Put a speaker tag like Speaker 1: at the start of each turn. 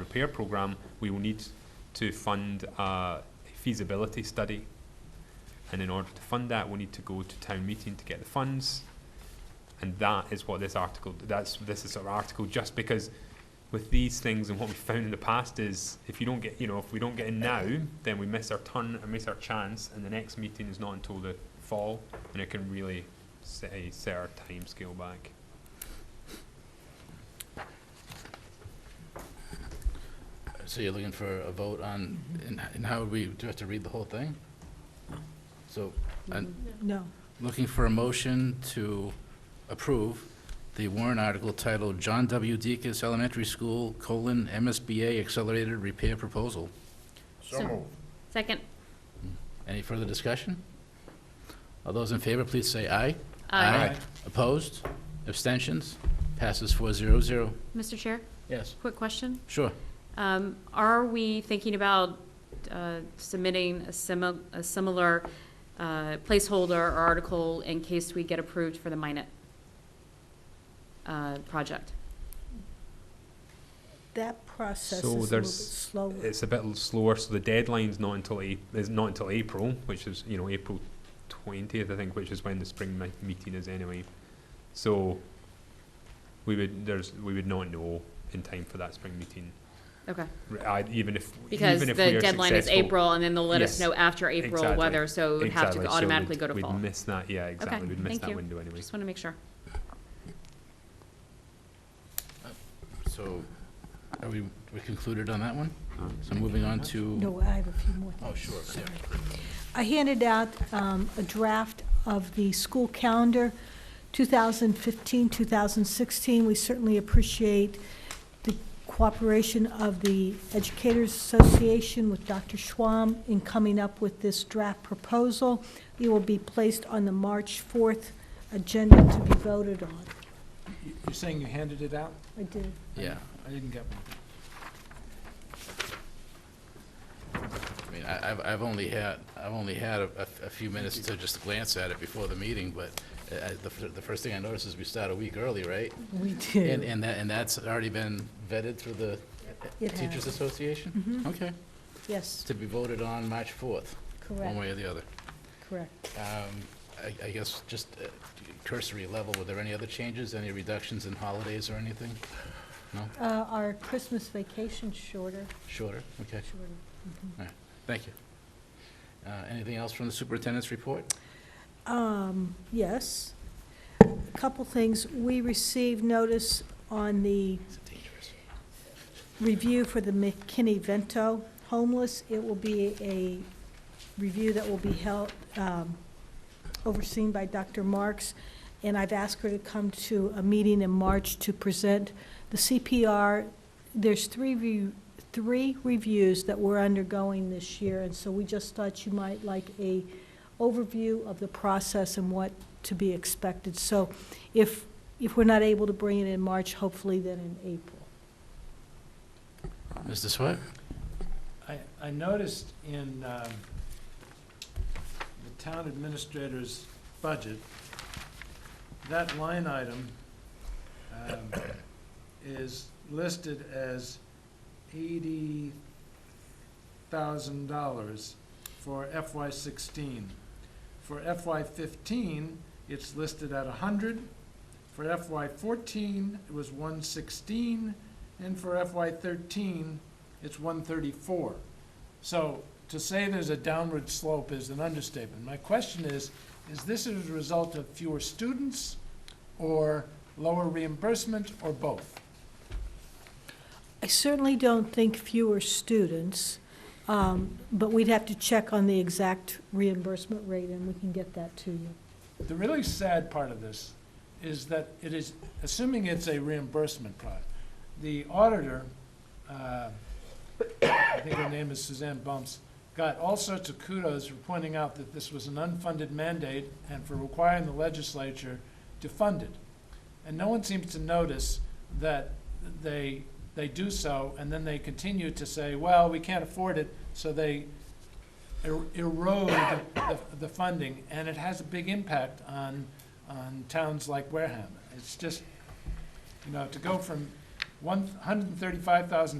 Speaker 1: repair program, we will need to fund a feasibility study. And in order to fund that, we need to go to town meeting to get the funds. And that is what this article, that's, this is our article, just because with these things and what we found in the past is if you don't get, you know, if we don't get in now, then we miss our turn and miss our chance, and the next meeting is not until the fall, and it can really set, a- set our timescale back.
Speaker 2: So you're looking for a vote on, and- and how would we, do we have to read the whole thing? So, and
Speaker 3: No.
Speaker 2: looking for a motion to approve the warrant article titled John W. Deacus Elementary School, colon, MSBA Accelerated Repair Proposal.
Speaker 4: So- Second.
Speaker 2: Any further discussion? All those in favor, please say aye.
Speaker 4: Aye.
Speaker 2: Opposed? Abstentions? Passes four zero zero.
Speaker 4: Mr. Chair,
Speaker 2: Yes,
Speaker 4: quick question.
Speaker 2: sure.
Speaker 4: Um, Are we thinking about uh, submitting a simi- a similar uh, placeholder or article in case we get approved for the Minnet uh, project?
Speaker 3: That process is a
Speaker 1: So
Speaker 3: little bit
Speaker 1: there's-
Speaker 3: slower.
Speaker 1: It's a bit l- slower, so the deadline's not until a, is not until April, which is, you know, April twentieth, I think, which is when the spring mi- meeting is anyway. So we would, there's, we would not know in time for that spring meeting,
Speaker 4: Okay,
Speaker 1: R- I, even if,
Speaker 4: because
Speaker 1: even
Speaker 4: the
Speaker 1: if we are
Speaker 4: deadline is
Speaker 1: successful.
Speaker 4: April, and then they'll let us
Speaker 1: Yes.
Speaker 4: know after April
Speaker 1: Exactly.
Speaker 4: whether, so it would have
Speaker 1: Exactly,
Speaker 4: to
Speaker 1: so
Speaker 4: automatically
Speaker 1: we'd-
Speaker 4: go to fall.
Speaker 1: We'd miss that, yeah, exactly, we'd miss
Speaker 4: thank
Speaker 1: that
Speaker 4: you.
Speaker 1: window anyway.
Speaker 4: Just want to make sure.
Speaker 2: So, are we, we concluded on that one? So moving on to.
Speaker 3: No, I have a few more things.
Speaker 2: Oh, sure, yeah.
Speaker 3: Sorry. I handed out um, a draft of the school calendar, 2015, 2016. We certainly appreciate the cooperation of the Educators Association with Dr. Schwam in coming up with this draft proposal. It will be placed on the March 4th agenda to be voted on.
Speaker 5: You- You're saying you handed it out?
Speaker 3: I did.
Speaker 2: Yeah,
Speaker 5: I didn't get one.
Speaker 2: I mean, I, I've, I've only had, I've only had a, a- a few minutes to just glance at it before the meeting, but uh, I- the, fir- the first thing I noticed is we start a week early, right?
Speaker 3: We
Speaker 2: And,
Speaker 3: did.
Speaker 2: and that, and that's already been vetted through the
Speaker 3: It
Speaker 2: Teachers
Speaker 3: has.
Speaker 2: Association?
Speaker 5: Mm-hmm.
Speaker 3: Mhm.
Speaker 2: Okay, It's
Speaker 3: Yes,
Speaker 2: to be voted on March fourth, one
Speaker 3: correct,
Speaker 2: way or the other.
Speaker 3: correct.
Speaker 2: Um, I, I guess just uh, cursory level, were there any other changes, any reductions in holidays or anything?
Speaker 3: Uh, Our Christmas vacation's shorter,
Speaker 2: Shorter, okay,
Speaker 3: shorter. mm-hmm.
Speaker 2: thank you. Uh, anything else from the superintendent's report?
Speaker 3: Um, yes. A couple things. We received notice on the
Speaker 2: Is it dangerous?
Speaker 3: review for the McKinney-Vento homeless. It will be a review that will be held, um, overseen by Dr. Marks. And I've asked her to come to a meeting in March to present the CPR. There's three re, three reviews that we're undergoing this year, and so we just thought you might like a overview of the process and what to be expected. So if, if we're not able to bring it in March, hopefully then in April.
Speaker 2: Mr. Swett?
Speaker 5: I, I noticed in um, the town administrator's budget, that line item um, is listed as eighty thousand dollars for FY sixteen. For FY fifteen, it's listed at a hundred. For FY fourteen, it was one sixteen, and for FY thirteen, it's one thirty-four. So to say there's a downward slope is an understatement. My question is, is this as a result of fewer students or lower reimbursement or both?
Speaker 3: I certainly don't think fewer students, um, but we'd have to check on the exact reimbursement rate, and we can get that to you.
Speaker 5: The really sad part of this is that it is, assuming it's a reimbursement product, the auditor, uh, I think her name is Suzanne Bumps, got all sorts of kudos for pointing out that this was an unfunded mandate and for requiring the legislature to fund it. And no one seems to notice that they, they do so, and then they continue to say, well, we can't afford it, so they er- erode the, the funding, and it has a big impact on, on towns like Wareham. It's just, you know, to go from one hundred and thirty-five thousand